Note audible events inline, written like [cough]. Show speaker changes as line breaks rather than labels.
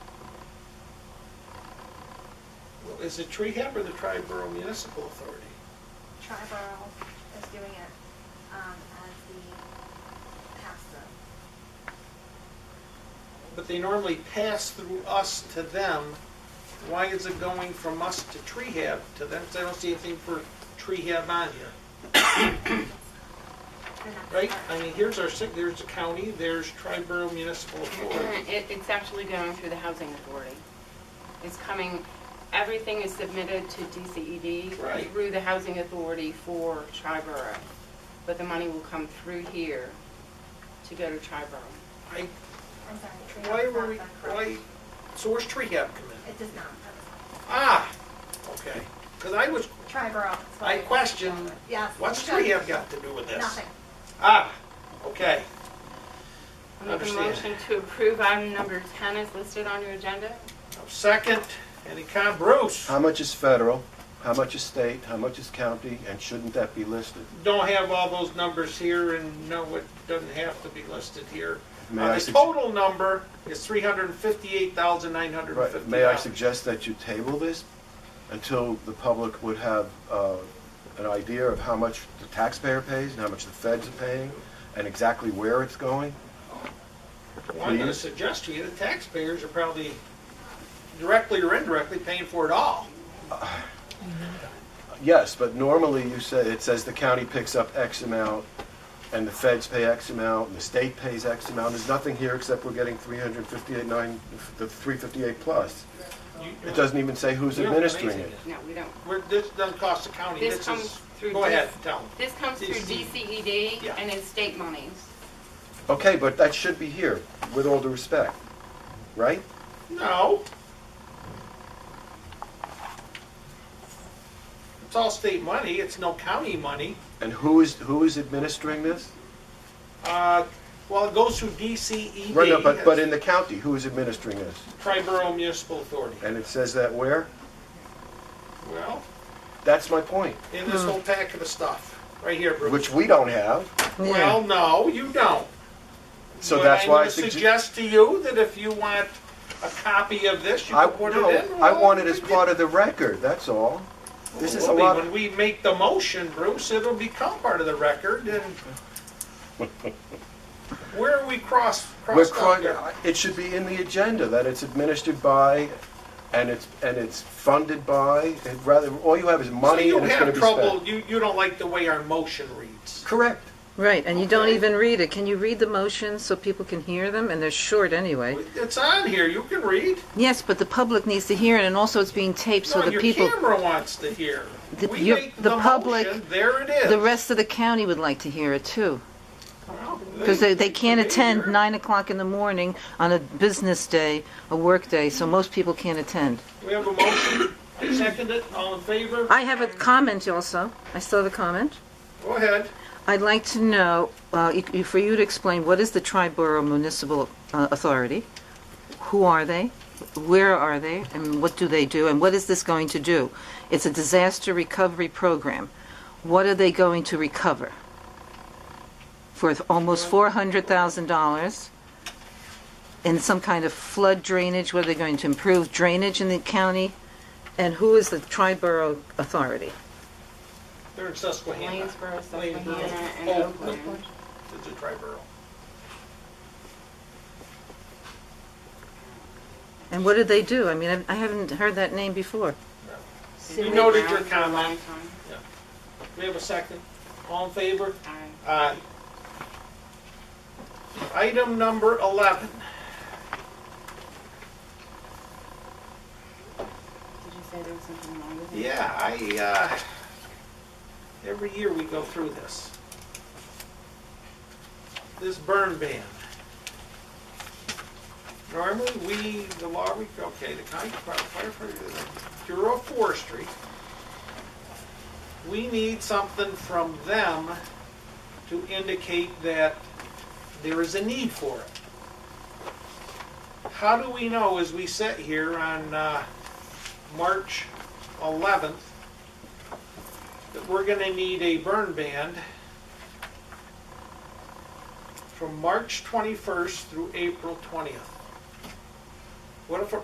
is it Trehab or the Triborough Municipal Authority?
Triborough is doing it, um, as the pass-through.
But they normally pass through us to them. Why is it going from us to Trehab to them? 'Cause I don't see anything for Trehab on here,
They're not
right?
part.
I mean, here's our, sig- there's the county, there's Triborough Municipal Authority.
It, it's actually going through the housing authority. It's coming, everything is submitted to DCED
Right.
through the housing authority for Triborough. But the money will come through here to go to Triborough.
I,
I'm sorry, Trehab
why
does
were
not
we,
fund crime.
why, so where's Trehab come in?
It does not, that was-
Ah, okay. Because I was,
Triborough. is what
I
it is.
questioned,
Yes.
what's
Tri-
Trehab got to do with this?
Nothing.
Ah, okay.
I Make a
Understand.
motion to approve item number 10 is listed on your agenda.
Now, Second, any com, Bruce?
How much is federal, how much is state, how much is county, and shouldn't that be listed?
don't have all those numbers here, and no, it doesn't have to be listed here.
May
Uh,
I
The
sug-
total number is three hundred and fifty-eight thousand, nine hundred and
Right,
fifty
may I
dollars.
suggest that you table this until the public would have uh, an idea of how much the taxpayer pays and how much the feds are paying, and exactly where it's going?
Well, I'm gonna
please?
suggest to you, the taxpayers are probably directly or indirectly paying for it all.
Yes, but normally you say, it says the county picks up X amount, and the feds pay X amount, and the state pays X amount. There's nothing here except we're getting 358, nine, the 358 plus.
You-
It doesn't even say who's
You're
administering
amazing.
it.
No, we don't.
We're, this doesn't cost the county,
This
this
comes
is,
through
go ahead,
this-
tell them.
This comes through DCED
E Yeah.
and it's state monies.
Okay, but that should be here, with all due respect, right?
No. It's all state money, it's no county money.
And who is, who is administering this?
Uh, well, it goes through E DCED.
Right, no, but, but in the county, who is administering this?
Triborough Municipal Authority.
And it says that where?
Well,
That's my point,
in this whole packet of stuff, right here, Bruce.
which we don't have,
Well, no, you don't.
so
But
that's why I
I'm gonna
suggest.
suggest to you that if you want a copy of this, you
I,
can put it
no,
in.
I want it as part of the record, that's all. This is a lot,
When we make the motion, Bruce, it'll become part of the record
[laughs]
and where are we cross,
we're,
crossed up here?
cro- it should be in the agenda, that it's administered by, and it's, and it's funded by, it rather, all you have is
So
money
you
and it's gonna
have
be
trouble,
spent.
you, you don't like the way our motion reads.
Correct.
Right, and you don't
Okay.
even read it. Can you read the motions so people can hear them? And they're short anyway.
It's on here, you can read.
Yes, but the public needs to hear it, and also it's being taped so
No,
the
your
people,
camera wants to hear.
The-
We
your-
make
the public-
motion, There it is.
the rest of the county would like to hear it too.
Well,
Because they, they can't attend
hear.
nine o'clock in the morning on a business day, a work day, so most people can't attend.
We have a motion. I second it. All in favor?
I have a comment also. I still have a comment.
Go ahead.
I'd like to know, uh, you- you- for you to explain, what is the Triborough Municipal uh, Authority? Who are they? Where are they? And what do they do? And what is this going to do? It's a disaster recovery program. What are they going to recover? For almost $400,000 in some kind of flood drainage? What are they going to improve drainage in the county? And who is the Triborough Authority?
They're in Susquehanna. Lanesboro,
Lanesboro, Susquehanna, and
Oakland.
Oakland.
Oh, [laughs] It's a triborough.
And what do they do? I mean, I- I haven't heard that name before.
You noted your
Around for a long
comment.
time.
We have a second. All in favor?
Aye.
Aye. Item number 11.
Did you say there was something wrong with it?
Yeah, I, uh, every year we go through this. This burn ban. Normally, we, the law, we, okay, the county firefighter, the Bureau of Forestry, we need something from them to indicate that there is a need for it. How do we know as we sit here on, uh, March 11th that we're going to need a burn ban from March 21st through April 20th. What if,